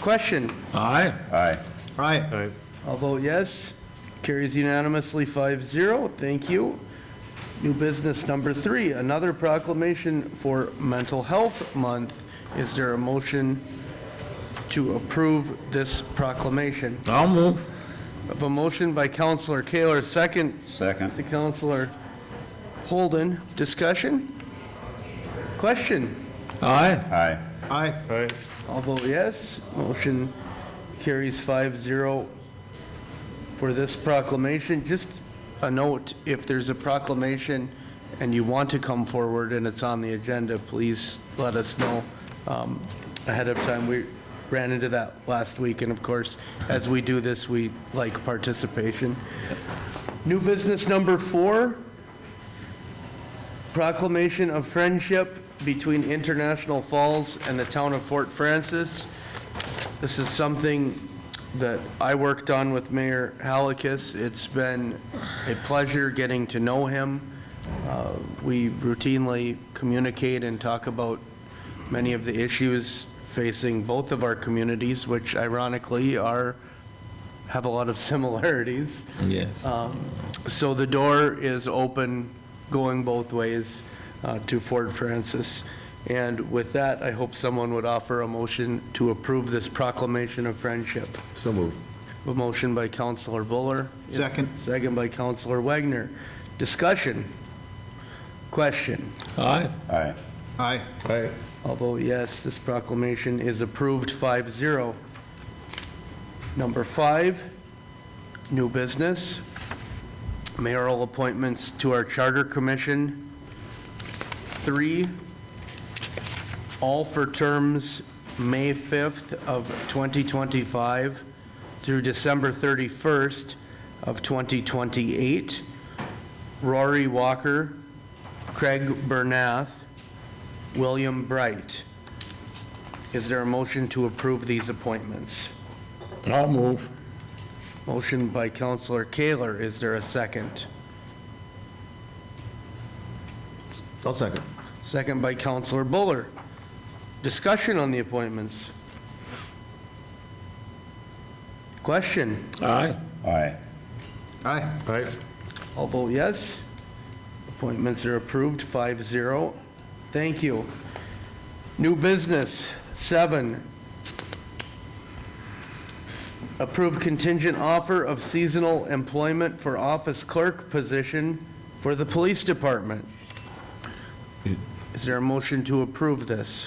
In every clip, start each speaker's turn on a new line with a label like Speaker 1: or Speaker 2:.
Speaker 1: Question?
Speaker 2: Aye.
Speaker 3: Aye.
Speaker 4: Aye.
Speaker 1: I'll vote yes. Carries unanimously 5-0. Thank you. New business number three, another proclamation for Mental Health Month. Is there a motion to approve this proclamation?
Speaker 2: I'll move.
Speaker 1: Of a motion by Counselor Kaler, second
Speaker 3: Second.
Speaker 1: to Counselor Holden. Discussion? Question?
Speaker 2: Aye.
Speaker 3: Aye.
Speaker 4: Aye. Aye.
Speaker 1: I'll vote yes. Motion carries 5-0 for this proclamation. Just a note, if there's a proclamation and you want to come forward and it's on the agenda, please let us know um, ahead of time. We ran into that last week, and of course, as we do this, we like participation. New business number four, Proclamation of Friendship between International Falls and the town of Fort Francis. This is something that I worked on with Mayor Halakis. It's been a pleasure getting to know him. Uh, We routinely communicate and talk about many of the issues facing both of our communities, which ironically are, have a lot of similarities.
Speaker 2: Yes.
Speaker 1: Um, So the door is open, going both ways uh, to Fort Francis. And with that, I hope someone would offer a motion to approve this proclamation of friendship.
Speaker 4: So move.
Speaker 1: A motion by Counselor Buller,
Speaker 4: Second.
Speaker 1: second by Counselor Wagner. Discussion? Question?
Speaker 2: Aye.
Speaker 3: Aye.
Speaker 4: Aye. Aye.
Speaker 1: I'll vote yes, this proclamation is approved 5-0. Number five, new business, mayoral appointments to our Charter Commission. Three, all for terms May 5th of 2025 through December 31st of 2028. Rory Walker, Craig Bernath, William Bright. Is there a motion to approve these appointments?
Speaker 2: I'll move.
Speaker 1: Motion by Counselor Kaler, is there a second?
Speaker 4: I'll second.
Speaker 1: Second by Counselor Buller. Discussion on the appointments? Question?
Speaker 2: Aye.
Speaker 3: Aye.
Speaker 4: Aye. Aye.
Speaker 1: I'll vote yes. Appointments are approved, 5-0. Thank you. New business, seven. Approved contingent offer of seasonal employment for office clerk position for the police department. Is there a motion to approve this?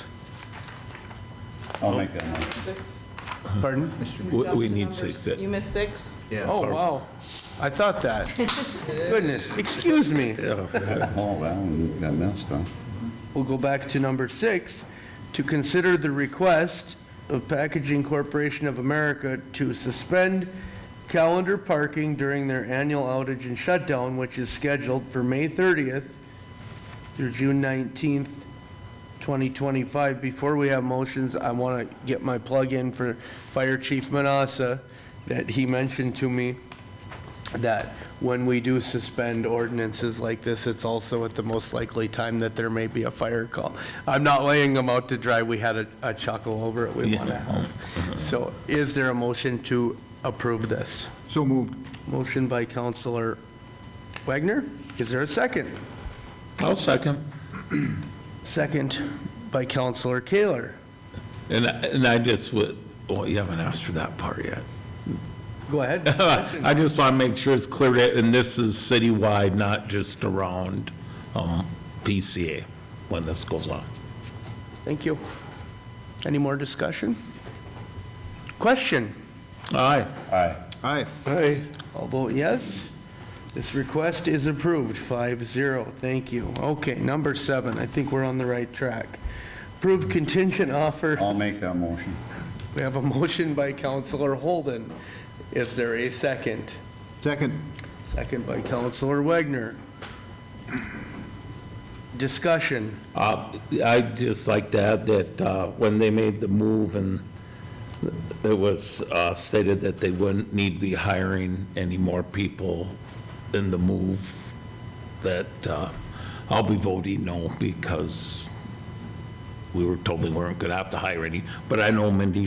Speaker 3: I'll make that motion.
Speaker 1: Pardon?
Speaker 2: We- We
Speaker 5: Adopted
Speaker 2: need
Speaker 5: numbers.
Speaker 2: six. uh,
Speaker 5: You missed six?
Speaker 4: Yeah.
Speaker 1: Oh, wow. I thought that. Goodness, excuse me.
Speaker 3: Oh, well, you got missed, huh?
Speaker 1: We'll go back to number six, to consider the request of Packaging Corporation of America to suspend calendar parking during their annual outage and shutdown, which is scheduled for May 30th through June 19th, 2025. Before we have motions, I want to get my plug in for Fire Chief Manassa, that he mentioned to me that when we do suspend ordinances like this, it's also at the most likely time that there may be a fire call. I'm not laying them out to dry, we had a- a chuckle over it, we want to help. So is there a motion to approve this?
Speaker 4: So moved.
Speaker 1: Motion by Counselor Wagner, is there a second?
Speaker 2: I'll second.
Speaker 1: Second by Counselor Kaler.
Speaker 2: And, I- and I just would, well, you haven't asked for that part yet.
Speaker 1: Go ahead.
Speaker 2: I just want to make sure it's clear, that- and this is citywide, not just around um, PCA when this goes on.
Speaker 1: Thank you. Any more discussion? Question?
Speaker 2: Aye.
Speaker 3: Aye.
Speaker 4: Aye. Aye.
Speaker 1: I'll vote yes. This request is approved, 5-0. Thank you. Okay, number seven, I think we're on the right track. Approved contingent offer.
Speaker 3: I'll make that motion.
Speaker 1: We have a motion by Counselor Holden. Is there a second?
Speaker 4: Second.
Speaker 1: Second by Counselor Wagner. Discussion.
Speaker 2: Uh, I'd just like to add that uh, when they made the move and it was uh, stated that they wouldn't need to be hiring any more people in the move, that uh, I'll be voting no because we were told they weren't going to have to hire any. But I know Mindy